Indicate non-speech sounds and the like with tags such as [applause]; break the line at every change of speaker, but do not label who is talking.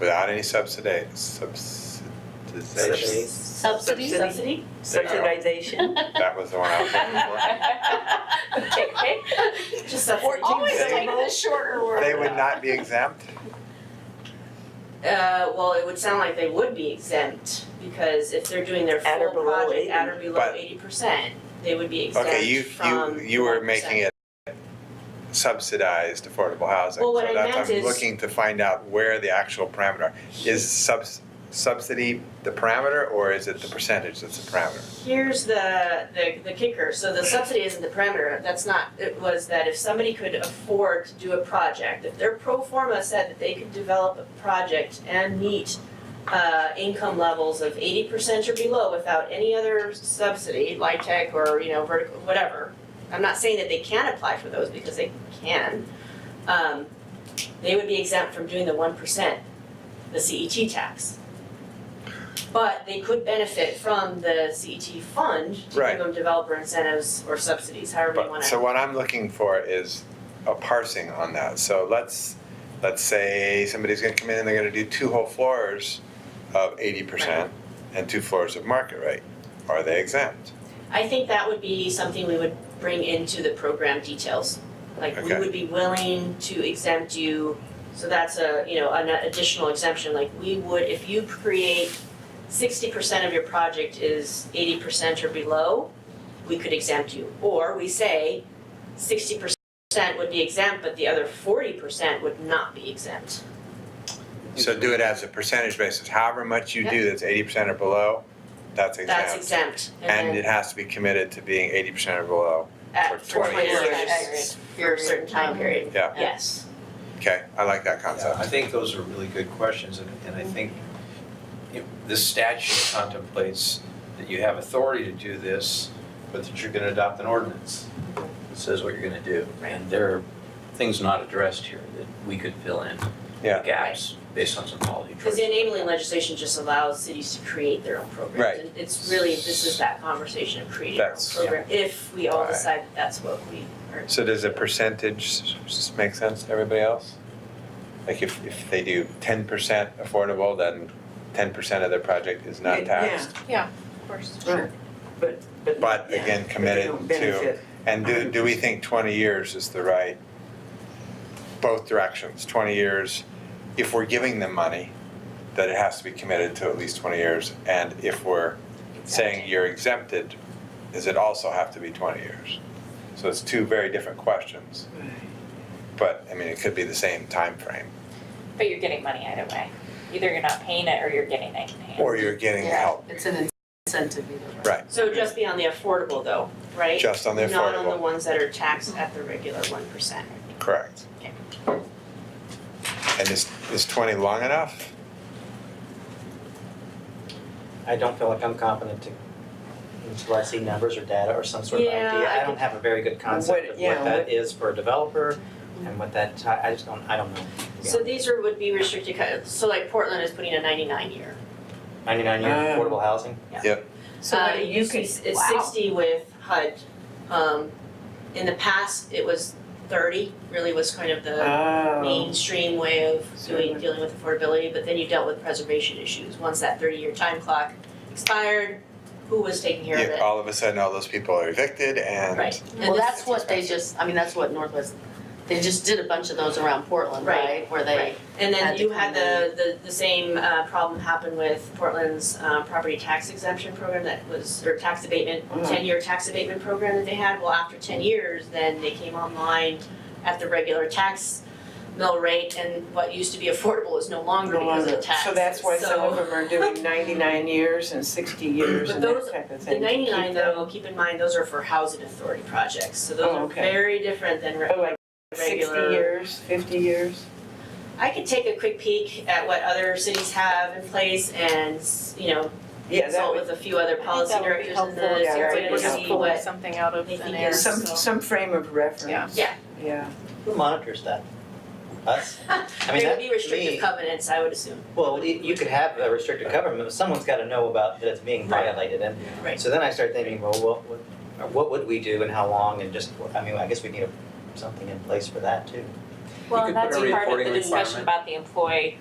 without any subsidy, subsidization.
Subsidies.
Subsidy, subsidy?
Subsidization.
That was the one I was
[laughs]
looking
Just
a
We're always
14
taking the shorter
for.
word.
They would not be exempt?
Uh, well, it would sound like they would be exempt, because if they're doing their
At or
full
below
project
80.
at or below
But-
eighty percent, they would be exempt
Okay, you,
from
you, you were making
1%.
it subsidized affordable housing.
Well, what I
So
meant
that's, I'm
is-
looking to find out where the actual parameter, is subs, subsidy the parameter or is it the percentage that's the parameter?
Here's the, the, the kicker, so the subsidy isn't the parameter, that's not, it was that if somebody could afford to do a project, if their pro forma said that they could develop a project and meet uh, income levels of eighty percent or below without any other subsidy, like tech or, you know, vertical, whatever. I'm not saying that they can apply for those because they can, um, they would be exempt from doing the one percent, the CET tax. But they could benefit from the CET fund to
Right.
give them developer incentives or subsidies, however you
But,
wanna.
so what I'm looking for is a parsing on that. So let's, let's say somebody's gonna come in and they're gonna do two whole floors of eighty percent and two floors of market rate. Are they exempt?
I think that would be something we would bring into the program details. Like, we
Okay.
would be willing to exempt you, so that's a, you know, an additional exemption, like, we would, if you create sixty percent of your project is eighty percent or below, we could exempt you. Or we say sixty percent would be exempt, but the other forty percent would not be exempt.
So do it as a percentage basis, however much you do that's eighty percent or below, that's exempt.
That's exempt,
And
and
it
then
has to be committed to being eighty percent or below,
at
for 20
twenty
years.
years, for a certain time period,
yeah,
yes.
okay, I like that
Yeah, I
concept.
think those are really good questions, and, and I think you know, this statute contemplates that you have authority to do this, but that you're gonna adopt an ordinance that says what you're gonna do. And there are things not addressed here that we could fill in
Yeah.
gaps based on some policy
Because
choices.
the enabling legislation just allows cities to create their own programs.
Right.
And It's really, this is that conversation of creating our own
That's-
program, if we all
Alright.
decide that that's what we are.
So does a percentage s- s- make sense to everybody else? Like if, if they do ten percent affordable, then ten percent of their project is not taxed.
Of course.
Sure. But, but.
But
yeah,
again,
but they
committed
don't
to,
benefit.
and do, do we think twenty years is the right, both directions, twenty years, if we're giving them money, that it has to be committed to at least twenty years, and if we're saying you're exempted, does it also have to be twenty years? So it's two very different questions. But, I mean, it could be the same time frame,
But you're getting money either way. Either you're not paying it or you're getting it in hand.
or you're getting help,
It's an incentive either way.
right,
So just be on the affordable though, right?
just on the
Not on the
affordable,
ones that are taxed at the regular one percent.
correct.
Okay.
And is, is twenty long enough?
I don't feel like I'm competent to, until I see numbers or data or some sort of
Yeah,
idea.
I
I don't have a very good concept of
yeah,
what that
what-
is for a developer and what that, ti- I just don't, I don't know. Yeah.
So these are, would be restricted, kind of- so like Portland is putting a ninety-nine year.
Ninety-nine year
Um,
affordable housing?
So
Uh,
what do
it
you
used to
could,
be s- it's
wow.
sixty with HUD. Um, in the past, it was thirty, really was kind of the
Oh,
mainstream way of doing,
Certainly.
dealing with affordability, but then you dealt with preservation issues. Once that thirty-year time clock expired, who was taking care of
Yeah,
it?
all of a sudden, all those people are evicted and.
Right, and
Well,
this-
that's what they just, I mean, that's what Northwest, they just did a bunch of those around Portland,
Right,
right? Where they,
right. And then
had to
you had
come in.
the, the, the same, uh, problem happen with Portland's, uh, property tax exemption program that was, or tax abatement,
Mhm.
Mm-hmm.
ten-year tax abatement program that they had. Well, after ten years, then they came online at the regular tax mill rate, and what used to be affordable is no longer
no
because
longer.
of taxes.
So that's why some
So-
of them are
[laughs]
doing ninety-nine years and sixty years
But
and that
those-
type of
The
thing. to keep
ninety-nine
them-
though, keep in mind, those are for housing authority projects, so those
Oh,
are
okay.
very different than re-
Oh, like Sixty
regular-
years, fifty years?
I could take a quick peek at what other cities have in place and, you know,
Yeah, that
consult
would,
with a few other policy
that would be
directors in
helpful,
the
yeah, that would
area
be
to
helpful.
see what,
something out of
They thin think air, it's
some, some frame of reference.
Yeah.
Yeah.
Who monitors that?
[laughs]
Us? I mean,
there
that,
would be restrictive
me,
covenants, I would assume,
well, you you could have a restricted government, but someone's gotta know about that it's being
Right.
violated and
right?
So then I start thinking, well, what would, what would we do and how long and just, I mean, I guess we need a- something in place for that too.
Well,
could
and
put
that's
a
part of
reporting
the discussion
requirement.
about the employee